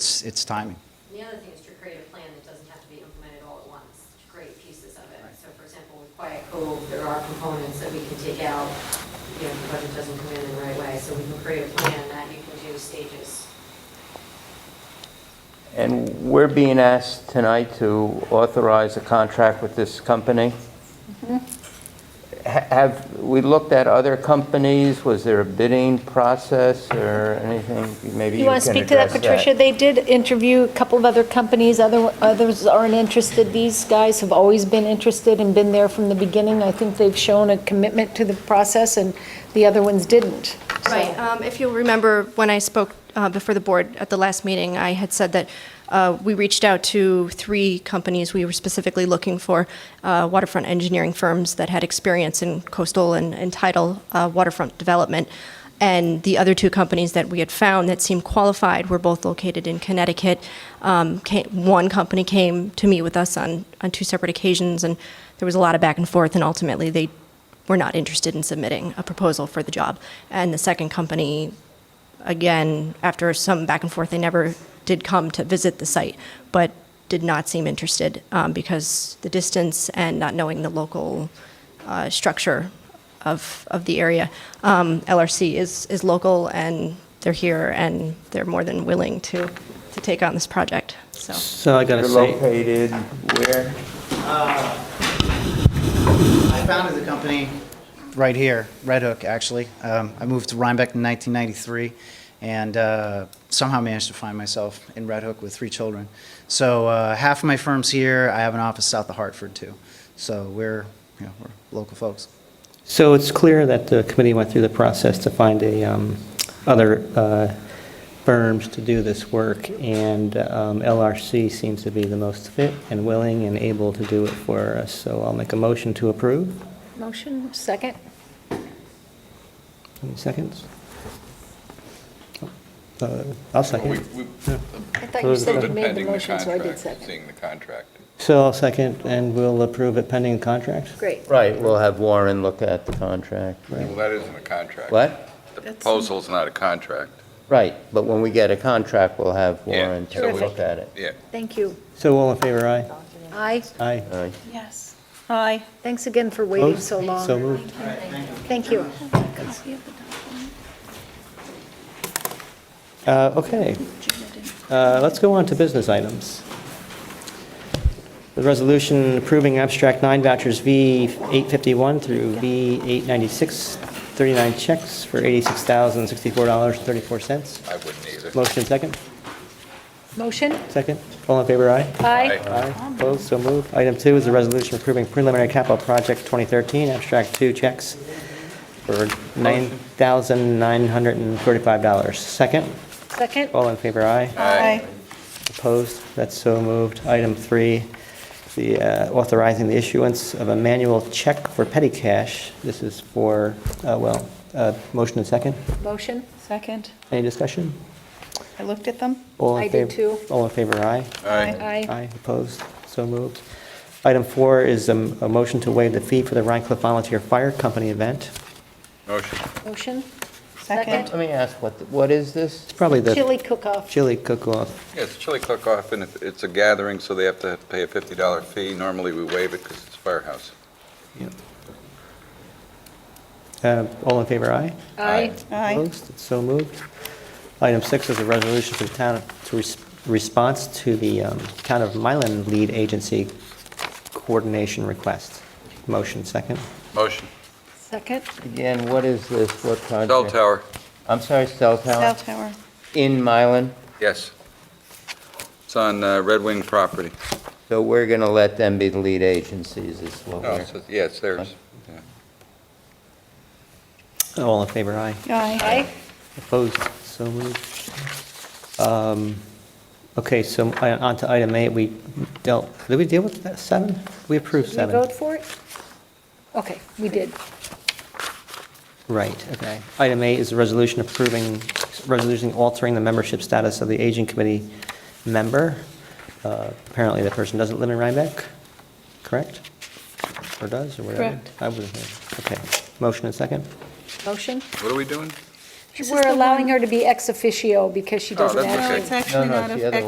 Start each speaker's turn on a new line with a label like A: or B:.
A: it's, it's timing.
B: And The other thing is to create a plan that doesn't have to be implemented all at once, to create pieces of it. So for example, with Quiet Cove, there are components that we can take out, you know, if the budget doesn't come in in the right way. So we can create a plan that you can do stages.
C: And we're being asked tonight to authorize a contract with this company? Ha- Have we looked at other companies? Was there a bidding process or anything? Maybe
D: You
C: you can address
D: want to speak to that, Patricia? They did interview a couple of other companies, other others aren't interested. These guys have always been interested and been there from the beginning. I think they've shown a commitment to the process, and the other ones didn't. So-
E: Right. Um, If you'll remember, when I spoke uh, before the board at the last meeting, I had said that uh, we reached out to three companies. We were specifically looking for uh, waterfront engineering firms that had experience in coastal and and tidal uh, waterfront development. And the other two companies that we had found that seemed qualified were both located in Connecticut. Um, ca- One company came to meet with us on on two separate occasions, and there was a lot of back and forth, and ultimately, they we're not interested in submitting a proposal for the job. And the second company, again, after some back and forth, they never did come to visit the site, but did not seem interested um, because the distance and not knowing the local uh, structure of, of the area. Um, LRC is, is local and they're here and they're more than willing to, to take on this project, so.
F: So I gotta
C: They're
F: say,
C: located where?
A: I founded the company right here, Red Hook, actually. Um, I moved to Rhinebeck in 1993 and uh, somehow managed to find myself in Red Hook with three children. So uh, half of my firm's here. I have an office south of Hartford, too. So we're, you know, we're local folks.
F: so it's clear that the committee went through the process to find a, um, other uh, firms to do this work, and um, LRC seems to be the most fit and willing and able to do it for us, so I'll make a motion to approve.
D: Motion, second?
F: Any seconds? Uh, I'll
G: We,
F: second.
G: we
D: I thought you said you
G: voted
D: made the
G: pending the
D: motion, so I did
G: contract,
D: second.
G: seeing the contract.
F: So I'll second, and we'll approve it pending contract?
D: Great.
C: Right, we'll have Warren look at the contract.
G: Well, that isn't a contract.
C: What?
G: The proposal's not a contract.
C: Right, but when we get a contract, we'll have
G: Yeah,
C: Warren
G: so
C: take a
G: we-
C: look at it.
G: Yeah.
D: Thank you.
F: So all in favor, aye?
D: Aye.
F: Aye.
C: All right.
H: Yes. Aye.
D: Thanks again for waiting so
F: Opposed?
D: long.
F: So moved.
D: Thank you.
H: Copy of the document.
F: Uh, Okay.
H: Gina didn't.
F: Uh, Let's go on to business items. The resolution approving abstract nine vouchers V851 through V896, 39 checks for $86,064.34.
G: I wouldn't either.
F: Motion second?
D: Motion?
F: Second? All in favor, aye?
D: Aye.
G: Aye.
F: Aye. Opposed? So moved. Item two is a resolution approving preliminary capital project 2013, abstract two checks for $9,935. Second?
D: Second?
F: All in favor, aye?
H: Aye.
F: Opposed? That's so moved. Item three, the uh, authorizing the issuance of a manual check for petty cash. This is for, uh, well, uh, motion and second.
D: Motion?
H: Second.
F: Any discussion?
H: I looked at them.
F: All in
D: I did
F: fav-
D: too.
F: All in favor, aye?
G: Aye.
D: Aye.
F: Opposed? So moved. Item four is um, a motion to waive the fee for the Rhine Cliff Volunteer Fire Company event.
G: Motion.
D: Motion?
H: Second.
C: Let me ask, what, what is this?
F: It's probably the
D: Chili cook-off.
F: chili cook-off.
G: Yeah, it's chili cook-off, and if it's a gathering, so they have to pay a $50 fee. Normally, we waive it because it's firehouse.
F: Uh, All in favor, aye?
D: Aye.
H: Aye.
F: Opposed? It's so moved. Item six is a resolution for the town, to res- response to the um, Town of Mylan Lead Agency Coordination Request. Motion second.
G: Motion.
D: Second?
C: Again, what is this? What project?
G: Bell tower,
C: I'm sorry, cell
H: Cell
C: tower?
H: tower.
C: In Mylan?
G: yes. It's on uh, Red Wing property.
C: So we're going to let them be the lead agencies, is what
G: No,
C: we're...
G: Oh, it's- yeah, it's theirs. Yeah.
F: All in favor, aye.
H: Aye.
D: Aye.
F: Opposed? So moved. Um, Okay, so i- on to item eight, we dealt, did we deal with that seven? We approved
D: Did we
F: seven.
D: vote for it? Okay, we did.
F: Right, okay. Item eight is a resolution approving, resolution altering the membership status of the aging committee member. Uh, Apparently, the person doesn't live in Rhinebeck, correct? Or does, or whatever?
H: Correct.
F: I wasn't here. Okay. Motion and second?
D: Motion?
G: What are we doing?
H: This is
D: We're
H: the
D: allowing
H: one-
D: her to be ex officio because she
G: Oh,
D: doesn't
G: that's
D: actually.
G: okay.
H: No, it's actually
C: no,
H: not
C: it's
H: a
C: the other
H: ex